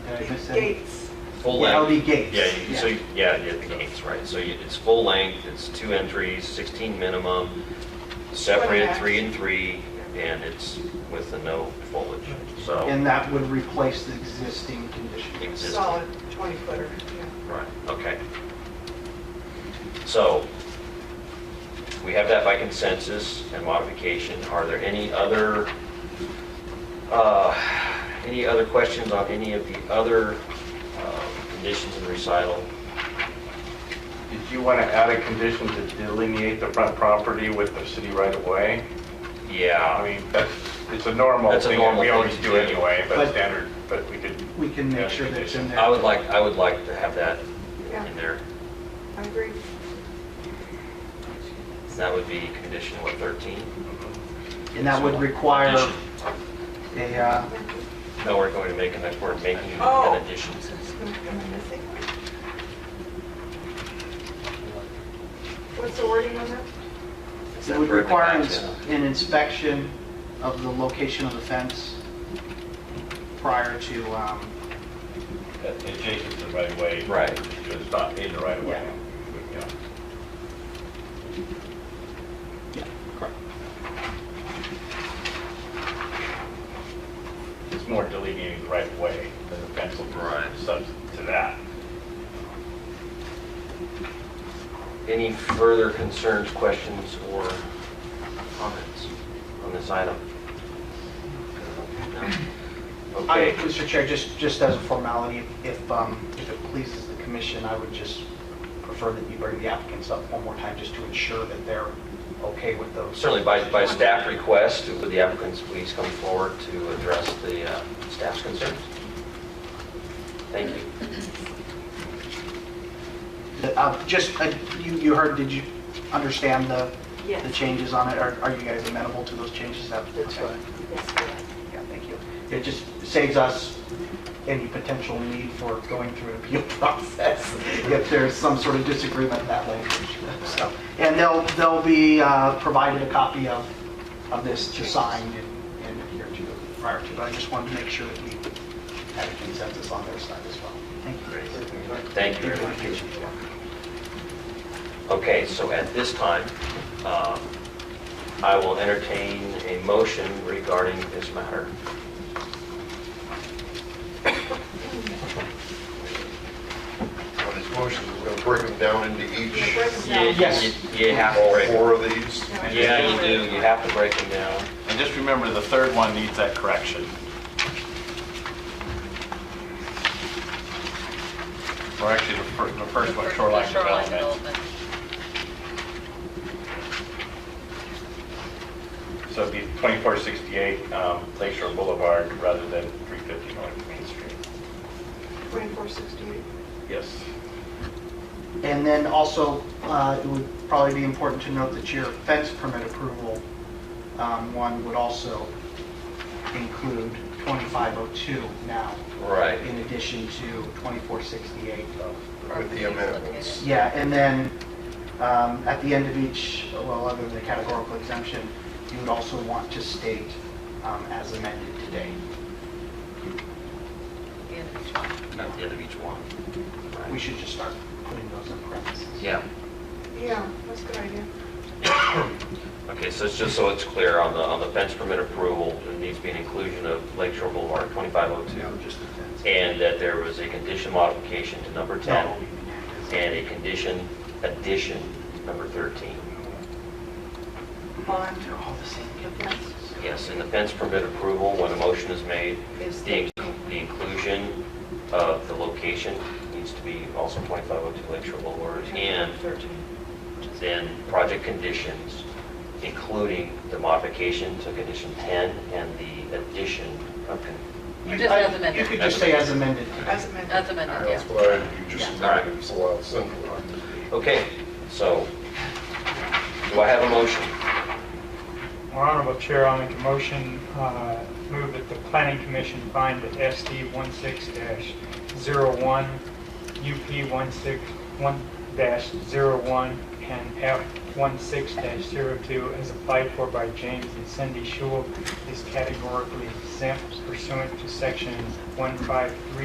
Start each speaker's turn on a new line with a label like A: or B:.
A: Did I miss any?
B: Gates.
C: Full
A: Yeah,
C: length.
A: LD gates.
C: Yeah, you- so, you- yeah, yeah, the gates, right. So you- it's full length, it's two entries, 16 minimum, separated
B: Twenty
C: three and three, and it's with the no foliage, so.
A: And that would replace the existing condition.
C: existing.
B: Solid 20 footer, yeah.
C: Right, okay. So, we have that by consensus and modification. Are there any other, uh, any other questions on any of the other uh, conditions in recital?
D: Did you want to add a condition to delineate the front property with the city right of way? I
C: Yeah,
D: mean, that's, it's a normal
C: That's a
D: thing, that
C: normal
D: we
C: thing
D: always
C: to
D: do
C: do.
D: anyway, but
A: But-
D: standard, but we could,
A: We can make sure that's in there.
C: I would like, I would like to have that
B: Yeah.
C: in there.
B: I agree.
C: That would be condition, what, 13?
A: And that would require
C: Addition.
A: a, uh,
C: No, we're going to make, an we're making
B: Oh.
C: an addition.
B: So it's gonna come in this thing. What's the wording on that?
A: it would require an ins- an inspection of the location of the fence prior to, um,
D: adjacent to the right of way.
C: Right.
D: It's not in the right of way. Yeah.
A: yeah, correct.
D: It's more delineating the right of way than the pencil
C: Right.
D: subs to that.
C: Any further concerns, questions, or comments on this item? No?
A: I-
C: Okay,
A: Mr. Chair, just, just as a formality, if, um, if it pleases the commission, I would just prefer that you bring the applicants up one more time just to ensure that they're okay with those.
C: certainly by, by staff request, would the applicants please come forward to address the uh, staff's concerns? Thank you.
A: Uh, Just, uh, you, you heard, did you understand the, the
E: Yes,
A: changes on it? Are are you guys amenable to those changes? That's
E: right. yes, correct.
A: Yeah, thank you. It just saves us any potential need for going through an appeal process if there's some sort of disagreement in that language. So, And they'll, they'll be uh, provided a copy of, of this to sign and and adhere to prior to, but I just wanted to make sure that we had a consensus on their side as well. Thank
C: Great.
A: you.
C: Thank you very much. Okay, so at this time, um, I will entertain a motion regarding this matter.
F: on his motion, we're going to break them down into each,
A: Yes.
C: You- You have to
F: all
C: break,
F: four of these.
C: yeah, you do, you have to break them down.
D: And just remember, the third one needs that correction. Or actually, the fir- the first one, shoreline development. So it'd be 2468 um, Lakeshore Boulevard rather than 350 North Main Street.
B: 2468.
D: Yes.
A: And then also, uh, it would probably be important to note that your fence permit approval, um, one would also include 2502 now,
C: Right.
A: in addition to 2468.
F: With the amendments.
A: Yeah, and then um, at the end of each, well, other than the categorical exemption, you would also want to state um, as amended today.
C: At the end of each one.
A: We should just start putting those in parentheses.
C: Yeah,
B: Yeah, that's a good idea.
C: okay, so it's just so it's clear on the, on the fence permit approval, there needs to be an inclusion of Lake Shore Boulevard
A: No,
C: 2502,
A: just the fence.
C: and that there was a condition modification to number 10.
A: That'll be unanimous.
C: and a condition addition number 13.
B: Bond.
A: They're all the same.
C: Yes, in the fence permit approval, when a motion is made,
B: Is
C: the the inclusion of the location needs to be also 2502 Lakeshore Boulevard, and
B: 13.
C: then project conditions, including the modification to condition 10 and the addition of, con-
A: You-
G: Just as amended.
A: You could just say as amended.
B: As amended.
G: That's amended,
F: That's
G: yeah.
F: why you just
C: Yeah.
F: made it, it's a lot simpler.
C: okay, so, do I have a motion?
H: Well, Honorable Chair, I'll make a motion, uh, move that the planning commission find that SD 16-01, UP 161-01, and F 16-02, as applied for by James and Cindy Shule, is categorically exempt pursuant to section 153